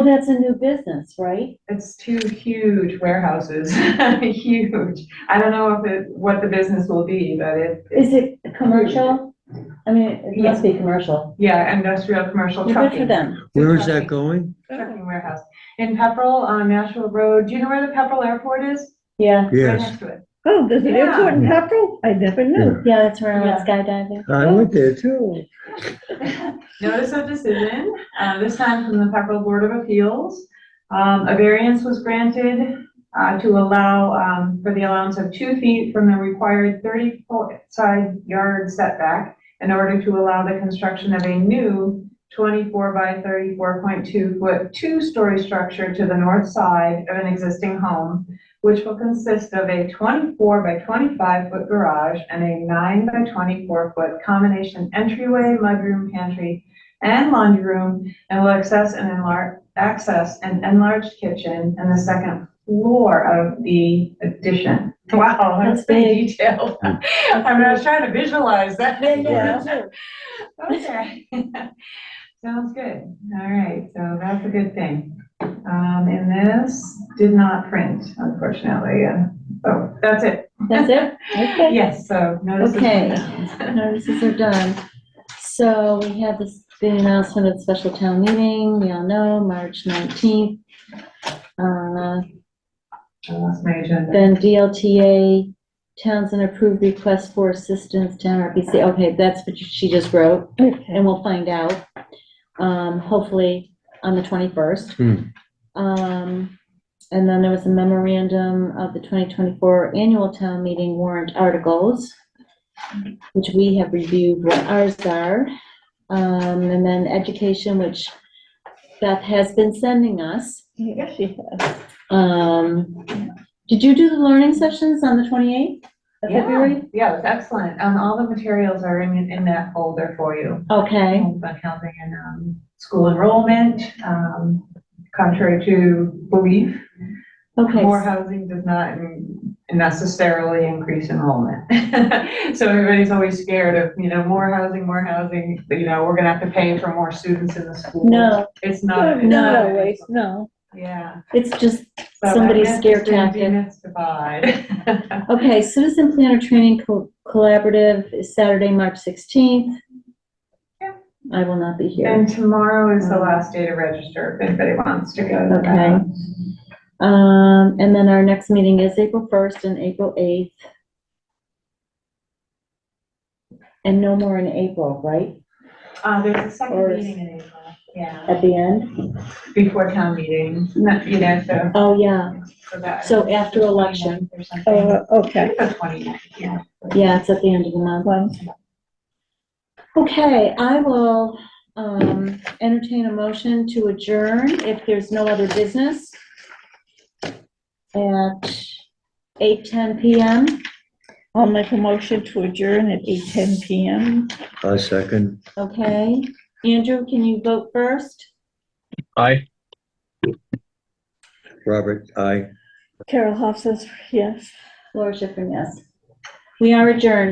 Well, that's a new business, right? It's two huge warehouses, huge. I don't know if it, what the business will be, but it, Is it commercial? I mean, it must be commercial. yeah, industrial, commercial Well, Good for trucking. them. Where is that going? Trucking warehouse. In Pepperell on Nashville Road, do you know where the Pepperell Airport is? Yeah, Right Yes, next to it. Oh, does it Yeah. airport in Pepperell? I never knew. yeah, that's where I went skydiving. I went there too. Notice of decision, uh, this time from the Pepperell Board of Appeals. Um, a variance was granted, uh, to allow, um, for the allowance of two feet from the required thirty-foot side yard setback in order to allow the construction of a new twenty-four by thirty-four point two foot, two-story structure to the north side of an existing home, which will consist of a twenty-four by twenty-five foot garage and a nine by twenty-four foot combination entryway, mudroom, pantry, and laundry room, and will access an enlarged, access an enlarged kitchen and the second floor of the addition. Wow, that's That's big. pretty detailed. I'm not trying to visualize that. Okay. Sounds good. All right, so that's a good thing. Um, and this did not print, unfortunately, uh, so that's it. That's it? Okay. Yes, so notice. of Okay. conditions. Notices are done. So we have this big announcement of the special town meeting, we all know, March 19th. Uh, I lost my agenda. Then DLTA, Townsend approved request for assistance, town RPC. Okay, that's what she just wrote. Okay. and we'll find out, um, hopefully on the twenty-first. Hmm. Um, and then there was a memorandum of the twenty twenty-four annual town meeting warrant articles, which we have reviewed what ours are. Um, and then education, which Beth has been sending us. Yes, she has. Um, did you do the learning sessions on the twenty-eighth of Yeah, February? yeah, it's excellent. Um, all the materials are in, in that folder for you. Okay, Homes on housing and, um, school enrollment, um, contrary to belief, okay. More housing does not necessarily increase enrollment. So everybody's always scared of, you know, more housing, more housing, but, you know, we're gonna have to pay for more students in the school. No, It's not. it's Not not- always, no. Yeah. it's just So I Somebody's guess scare it's been tactic. Demystified. Okay, Citizen Planner Training Co- Collaborative is Saturday, March 16th. Yeah. I will not be here. And tomorrow is the last day to register if anybody wants to go. to that. Okay. Um, and then our next meeting is April 1st and April 8th. And no more in April, right? Uh, there's a second Or- meeting in April, yeah, At the end? before town meeting, not, you know, so Oh, yeah. for that. So after election. Or something. Oh, okay. The 29th, yeah. Yeah, it's at the end of the month. One. Okay, I will, um, entertain a motion to adjourn if there's no other business at 8:10 PM. I'll make a motion to adjourn at 8:10 PM. A second. Okay, Andrew, can you vote first? Aye. Robert, aye. Carol Hoff says yes. Laura Schifrin, yes. We are adjourned.